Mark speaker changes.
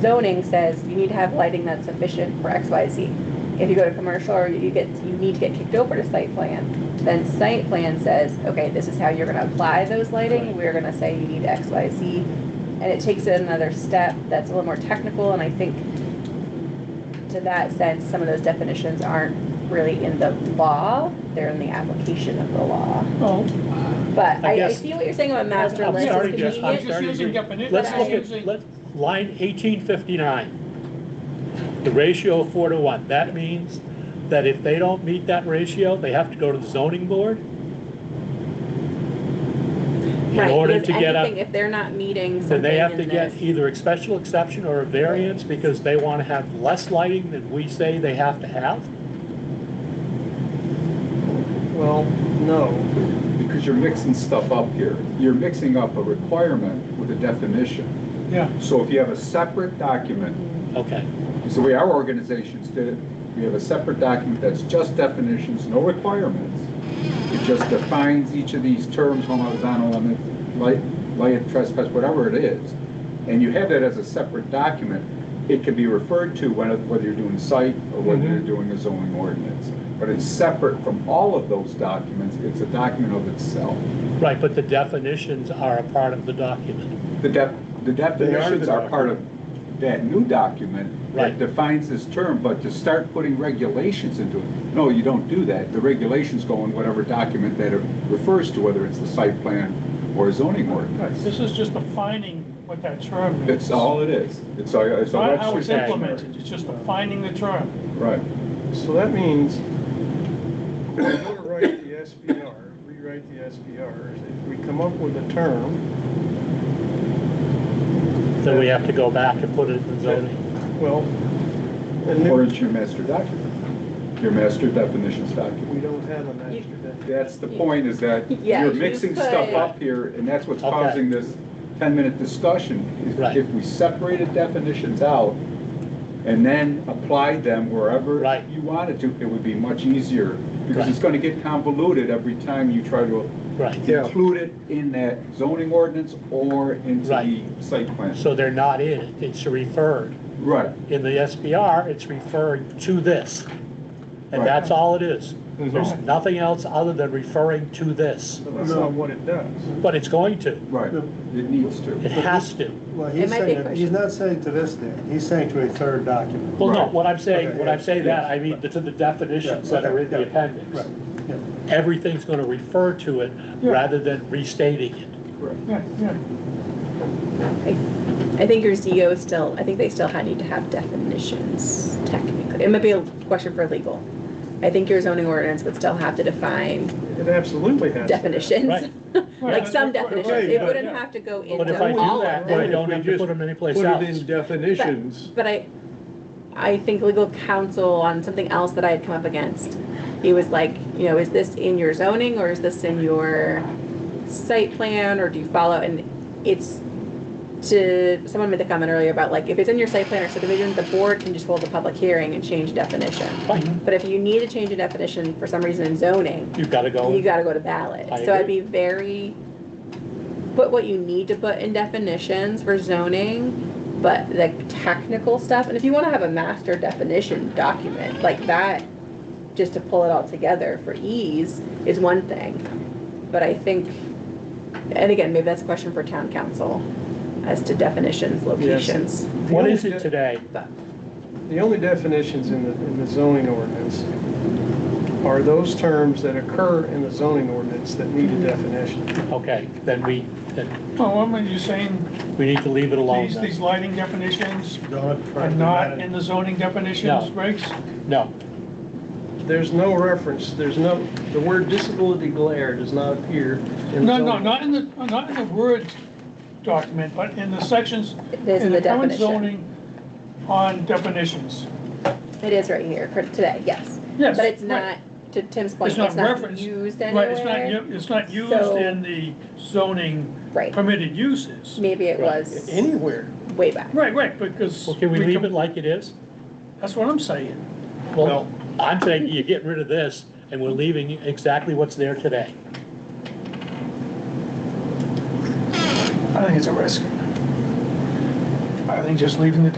Speaker 1: zoning says you need to have lighting that's sufficient for X, Y, Z. If you go to commercial or you get, you need to get kicked over to site plan, then site plan says, okay, this is how you're gonna apply those lighting, we're gonna say you need X, Y, Z. And it takes it another step that's a little more technical, and I think to that sense, some of those definitions aren't really in the law, they're in the application of the law.
Speaker 2: Well,
Speaker 1: But
Speaker 2: I
Speaker 1: I, I
Speaker 2: guess-
Speaker 1: see what you're saying about master
Speaker 2: I'm
Speaker 1: list
Speaker 2: starting
Speaker 1: is
Speaker 2: to- I'm
Speaker 1: convenient.
Speaker 2: starting to
Speaker 3: using
Speaker 2: agree.
Speaker 3: definitions.
Speaker 2: Let's
Speaker 1: I'm
Speaker 2: look at,
Speaker 3: using-
Speaker 2: let, line eighteen fifty-nine. The ratio of four to one, that means that if they don't meet that ratio, they have to go to the zoning board? In
Speaker 1: Right,
Speaker 2: order
Speaker 1: because
Speaker 2: to get
Speaker 1: anything,
Speaker 2: a,
Speaker 1: If they're not meeting something
Speaker 2: then they have to
Speaker 1: in
Speaker 2: get
Speaker 1: this-
Speaker 2: either a special exception or a variance because they want to have less lighting than we say they have to have?
Speaker 4: Well, no,
Speaker 5: Because you're mixing stuff up here. You're mixing up a requirement with a definition.
Speaker 3: Yeah.
Speaker 5: So if you have a separate document,
Speaker 2: Okay,
Speaker 5: it's the way our organizations did it, we have a separate document that's just definitions, no requirements. It just defines each of these terms, home horizontal limit, light, light trespass, whatever it is. And you have that as a separate document. It can be referred to when- whether you're doing site or whether you're doing a zoning ordinance. But it's separate from all of those documents. It's a document of itself.
Speaker 2: right, but the definitions are a part of the document.
Speaker 5: The def, the definitions
Speaker 2: the
Speaker 5: are part of that new document
Speaker 2: Right.
Speaker 5: that defines this term, but to start putting regulations into it, no, you don't do that. The regulations go in whatever document that it refers to, whether it's the site plan or zoning ordinance.
Speaker 3: This is just defining what that term is.
Speaker 5: It's all it is. It's a, it's a
Speaker 3: Not how
Speaker 5: Webster's
Speaker 3: it's
Speaker 5: dictionary.
Speaker 3: implemented, it's just defining the term.
Speaker 5: Right.
Speaker 4: so that means we're gonna write the SPR, rewrite the SPR. If we come up with a term,
Speaker 2: Then we have to go back and put it in the zoning.
Speaker 4: well, and
Speaker 5: Or
Speaker 4: if
Speaker 5: it's your master document, your master definitions document.
Speaker 4: we don't have a master definition.
Speaker 5: That's the point, is that
Speaker 1: Yeah,
Speaker 5: you're
Speaker 1: you
Speaker 5: mixing
Speaker 1: could-
Speaker 5: stuff up here, and that's what's
Speaker 2: Okay.
Speaker 5: causing this ten-minute discussion. If-
Speaker 2: Right.
Speaker 5: If we separated definitions out and then applied them wherever
Speaker 2: Right.
Speaker 5: you wanted to, it would be much easier, because
Speaker 2: Right.
Speaker 5: it's gonna get convoluted every time you try to
Speaker 2: Right,
Speaker 4: Yeah.
Speaker 5: include it in that zoning ordinance or into the
Speaker 2: Right.
Speaker 5: site plan.
Speaker 2: so they're not in it, it's referred.
Speaker 5: Right,
Speaker 2: In the SBR, it's referring to this. And
Speaker 5: Right.
Speaker 2: that's all it is.
Speaker 4: Mhm.
Speaker 2: There's nothing else other than referring to this,
Speaker 4: But That's not what it does.
Speaker 2: but it's going to.
Speaker 5: right, it needs
Speaker 2: It
Speaker 5: to.
Speaker 2: has to.
Speaker 6: Well,
Speaker 1: It
Speaker 6: he's
Speaker 1: might be a
Speaker 6: saying, he's
Speaker 1: question.
Speaker 6: not saying to this Dan, he's saying to a third document.
Speaker 2: Well, no,
Speaker 5: Right.
Speaker 2: what I'm saying,
Speaker 6: Okay,
Speaker 2: when I'm
Speaker 6: yeah,
Speaker 2: saying that, I mean, to the definitions that are in the
Speaker 6: Yeah, okay, yeah,
Speaker 2: appendix.
Speaker 6: Right, yeah.
Speaker 2: Everything's gonna refer to it rather than restating it.
Speaker 5: Correct.
Speaker 3: Yeah, yeah.
Speaker 1: I think your CEO still, I think they still had, need to have definitions technically. It might be a question for legal. I think your zoning ordinance would still have to define
Speaker 4: It absolutely has. to have.
Speaker 2: Right.
Speaker 1: definitions, like some
Speaker 3: Right, right,
Speaker 1: definitions. It
Speaker 4: right,
Speaker 1: wouldn't
Speaker 3: yeah.
Speaker 1: have to go
Speaker 2: But if I
Speaker 1: into
Speaker 2: do
Speaker 1: all
Speaker 2: that,
Speaker 1: of
Speaker 2: then I
Speaker 1: them.
Speaker 2: don't have to put them anyplace
Speaker 7: Put it
Speaker 2: else.
Speaker 7: in definitions.
Speaker 1: But I, I think legal counsel on something else that I had come up against, he was like, you know, is this in your zoning or is this in your site plan or do you follow? And it's to, someone made the comment earlier about like, if it's in your site plan or subdivision, the board can just hold a public hearing and change definition.
Speaker 2: Fine,
Speaker 1: But if you need to change a definition for some reason in zoning,
Speaker 2: you've gotta
Speaker 1: you
Speaker 2: go,
Speaker 1: gotta go to ballot.
Speaker 2: I
Speaker 1: So I'd
Speaker 2: agree.
Speaker 1: be very, put what you need to put in definitions for zoning, but the technical stuff, and if you wanna have a master definition document like that, just to pull it all together for ease is one thing. But I think, and again, maybe that's a question for town council as to definitions, locations.
Speaker 2: what is it today?
Speaker 4: The only definitions in the, in the zoning ordinance are those terms that occur in the zoning ordinance that need a definition.
Speaker 2: Okay, then we, then
Speaker 3: Well, I'm you saying
Speaker 2: we need to leave it alone
Speaker 3: these,
Speaker 2: then.
Speaker 3: these lighting definitions
Speaker 6: Don't try
Speaker 3: are
Speaker 6: to do
Speaker 3: not
Speaker 6: that.
Speaker 3: in the zoning definitions,
Speaker 2: No.
Speaker 3: Greg's?
Speaker 2: No,
Speaker 4: There's no reference, there's no, the word disability glare does not appear in the
Speaker 3: No, no,
Speaker 4: zoning.
Speaker 3: not in the, not in the Word document, but in the sections.
Speaker 1: is
Speaker 3: in
Speaker 1: the
Speaker 3: current
Speaker 1: definition.
Speaker 3: zoning On definitions.
Speaker 1: It is right here, cor- today, yes.
Speaker 3: Yes,
Speaker 1: But it's
Speaker 3: right.
Speaker 1: not, to Tim's point,
Speaker 3: It's not
Speaker 1: it's not
Speaker 3: referenced.
Speaker 1: used
Speaker 3: Right, it's not,
Speaker 1: anywhere.
Speaker 3: u- it's not used
Speaker 1: So-
Speaker 3: in the zoning
Speaker 1: Right,
Speaker 3: permitted uses.
Speaker 1: maybe it
Speaker 2: Right.
Speaker 1: was.
Speaker 4: Anywhere.
Speaker 1: way back.
Speaker 3: Right, right, because.
Speaker 2: well, can we leave
Speaker 3: can-
Speaker 2: it like it is?
Speaker 3: That's what I'm saying.
Speaker 2: Well, I'm saying you're getting rid of this and we're leaving exactly what's there today.
Speaker 3: I think it's a risk. I think just leaving the